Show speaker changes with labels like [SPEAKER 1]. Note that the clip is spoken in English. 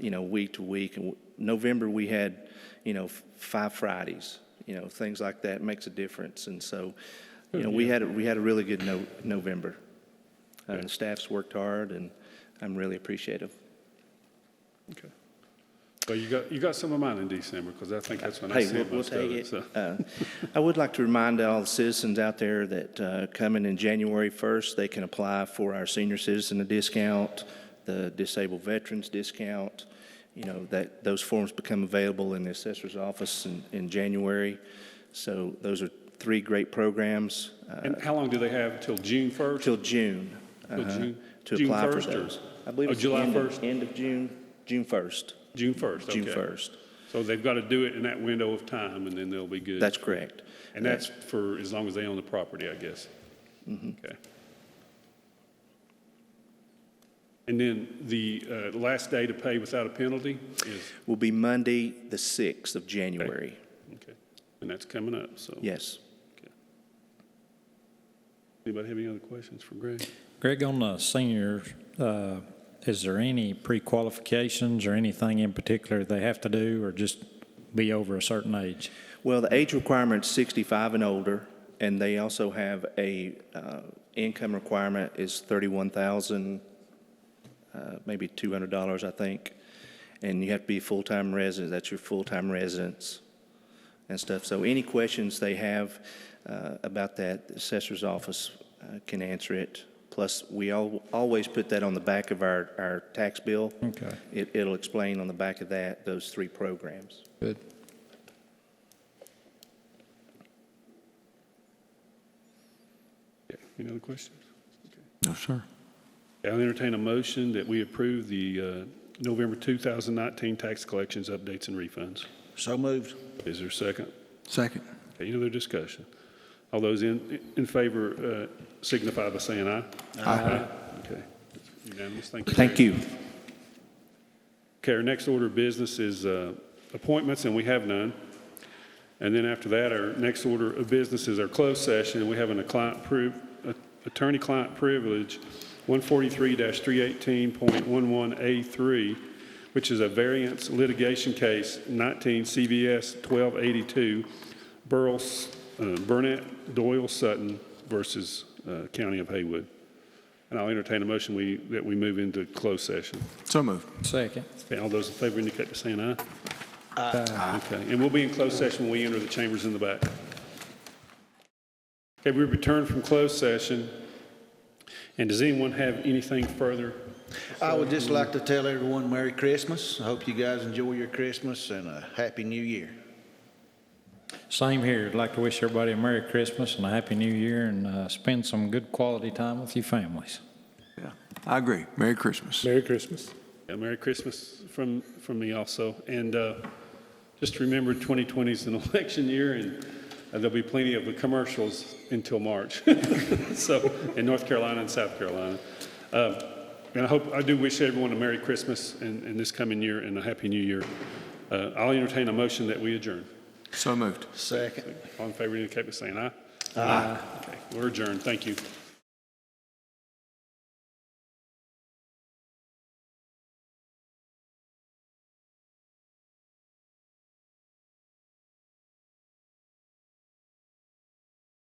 [SPEAKER 1] you know, week to week. And November, we had, you know, f- five Fridays, you know, things like that makes a difference. And so, you know, we had, a- we had a really good no, November. Uh, the staff's worked hard and I'm really appreciative.
[SPEAKER 2] Okay. Well, you got, you got some of mine in December, because I think that's when I
[SPEAKER 1] Hey,
[SPEAKER 2] see
[SPEAKER 1] we'll, we'll
[SPEAKER 2] most of
[SPEAKER 1] take
[SPEAKER 2] it,
[SPEAKER 1] it.
[SPEAKER 2] so.
[SPEAKER 1] Uh, I would like to remind all the citizens out there that uh, coming in January 1st, they can apply for our senior citizen discount, the disabled veterans discount. You know, that, those forms become available in the assessor's office in, in January. So those are three great programs uh,
[SPEAKER 2] And how long do they have, till June 1st?
[SPEAKER 1] till June.
[SPEAKER 2] Till
[SPEAKER 1] uh-huh,
[SPEAKER 2] June-
[SPEAKER 1] To
[SPEAKER 2] June
[SPEAKER 1] apply for
[SPEAKER 2] 1st or-
[SPEAKER 1] those. I believe
[SPEAKER 2] or
[SPEAKER 1] it's
[SPEAKER 2] July
[SPEAKER 1] end of-
[SPEAKER 2] 1st?
[SPEAKER 1] End of June, June 1st,
[SPEAKER 2] June 1st, okay.
[SPEAKER 1] June 1st.
[SPEAKER 2] So they've got to do it in that window of time, and then they'll be good.
[SPEAKER 1] That's correct.
[SPEAKER 2] And that's for as long as they own the property, I guess.
[SPEAKER 1] Mm-hmm.
[SPEAKER 2] Okay. And then the uh, last day to pay without a penalty is,
[SPEAKER 1] Will be Monday, the 6th of January.
[SPEAKER 2] okay, and that's coming up, so.
[SPEAKER 1] Yes.
[SPEAKER 2] Anybody have any other questions for Greg?
[SPEAKER 3] Greg, on the seniors, uh, is there any pre-qualifications or anything in particular they have to do, or just be over a certain age?
[SPEAKER 1] Well, the age requirement's 65 and older, and they also have a uh, income requirement is 31,000, uh, maybe $200, I think. And you have to be a full-time resident, that's your full-time residence and stuff. So any questions they have uh, about that, the assessor's office uh, can answer it. Plus, we al- always put that on the back of our, our tax bill.
[SPEAKER 3] Okay.
[SPEAKER 1] It, it'll explain on the back of that, those three programs.
[SPEAKER 4] Good.
[SPEAKER 2] Yeah, Any other questions? Okay.
[SPEAKER 4] No, sir.
[SPEAKER 2] I'll entertain a motion that we approve the uh, November 2019 tax collections, updates, and refunds.
[SPEAKER 5] So moved.
[SPEAKER 2] Is there a second?
[SPEAKER 4] Second.
[SPEAKER 2] Any other discussion? All those in, in favor uh, signify by saying aye. Aye. Okay. Unanimous, thank you.
[SPEAKER 1] Thank you.
[SPEAKER 2] Okay, our next order of business is uh, appointments, and we have none. And then after that, our next order of business is our closed session, and we have an client priv- a- attorney-client privilege, 143-318.11A3, which is a variance litigation case, 19 CVS 1282, Burles- uh, Burnett Doyle Sutton versus uh, County of Haywood. And I'll entertain a motion we- that we move into closed session.
[SPEAKER 4] So moved.
[SPEAKER 3] Second.
[SPEAKER 2] Okay, all those in favor indicate by saying aye. Aye. Okay, and we'll be in closed session when we enter the chambers in the back. Okay, we return from closed session. And does anyone have anything further?
[SPEAKER 5] I would just like to tell everyone Merry Christmas. I hope you guys enjoy your Christmas and a Happy New Year.
[SPEAKER 3] Same here. I'd like to wish everybody a Merry Christmas and a Happy New Year, and uh, spend some good quality time with your families.
[SPEAKER 4] Yeah, I agree. Merry Christmas.
[SPEAKER 6] Merry Christmas.
[SPEAKER 2] Yeah, Merry Christmas from, from me also. And uh, just remember, 2020 is an election year, and uh, there'll be plenty of commercials until March. So, in North Carolina and South Carolina. Uh, And I hope, I do wish everyone a Merry Christmas and, and this coming year and a Happy New Year. Uh, I'll entertain a motion that we adjourn.
[SPEAKER 4] So moved.
[SPEAKER 5] Second.
[SPEAKER 2] All in favor indicate by saying aye. Aye. Okay, we're adjourned. Thank you.